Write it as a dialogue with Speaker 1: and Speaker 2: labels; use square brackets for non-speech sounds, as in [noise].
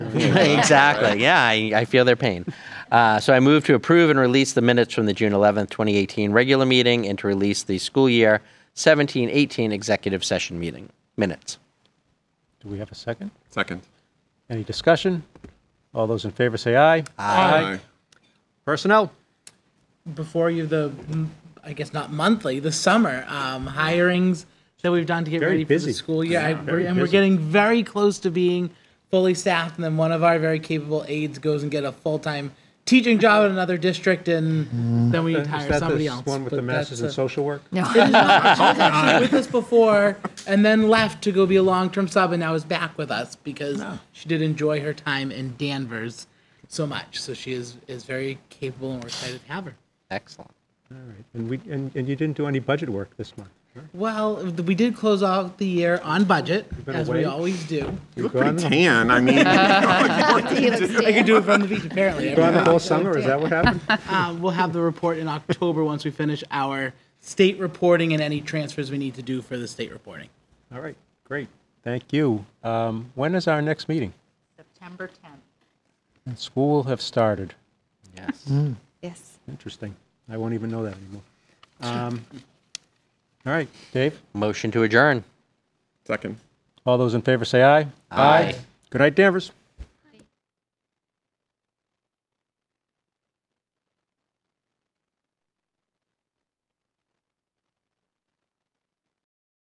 Speaker 1: exactly. Yeah, I, I feel their pain. Uh, so I move to approve and release the minutes from the June 11th, 2018 regular meeting and to release the school year 17-18 executive session meeting minutes.
Speaker 2: Do we have a second?
Speaker 3: Second.
Speaker 2: Any discussion? All those in favor say aye. Personnel?
Speaker 4: before you the mm, I guess not monthly the summer um, hirings that we've done to get
Speaker 2: Very
Speaker 4: ready for
Speaker 2: busy.
Speaker 4: the school year I, we're,
Speaker 2: very
Speaker 4: and we're
Speaker 2: busy.
Speaker 4: getting very close to being fully staffed and then one of our very capable aides goes and get a full time teaching job in another district and then we
Speaker 2: Is
Speaker 4: hire
Speaker 2: that
Speaker 4: somebody
Speaker 2: the
Speaker 4: else
Speaker 2: one with
Speaker 4: But
Speaker 2: the masters
Speaker 4: that's,
Speaker 2: in
Speaker 4: uh,
Speaker 2: social work?
Speaker 4: [laughs] it is not. She was actually with us before and then left to go be a long term sub and now is back with us because she did enjoy her time in Danvers so much so she is is very capable and we're excited to have her.
Speaker 1: Excellent.
Speaker 2: And we, and, and you didn't do any budget work this month?
Speaker 4: Well, we did close out the year on budget,
Speaker 2: been
Speaker 4: as
Speaker 2: away?
Speaker 4: we always do.
Speaker 2: You
Speaker 3: You look
Speaker 2: were gone
Speaker 3: pretty tan. I mean,
Speaker 5: He looks
Speaker 4: [laughs] I
Speaker 5: tan.
Speaker 4: could do it from the
Speaker 2: [laughs]
Speaker 4: beach, apparently.
Speaker 2: Gone the whole summer, is that what [laughs] happened?
Speaker 4: Uh, we'll have the report in October once we finish our state reporting and any transfers we need to do for the state reporting.
Speaker 2: All right, great. Thank you. Um, When is our next meeting?
Speaker 5: September 10th.
Speaker 2: And School will have started.
Speaker 1: Yes.
Speaker 5: Yes.
Speaker 2: Interesting. I won't even know that anymore. Um, [laughs] All right, Dave,
Speaker 1: Motion to adjourn.
Speaker 3: second.
Speaker 2: all those in favor say aye.
Speaker 1: Aye.
Speaker 2: Good night, Danvers.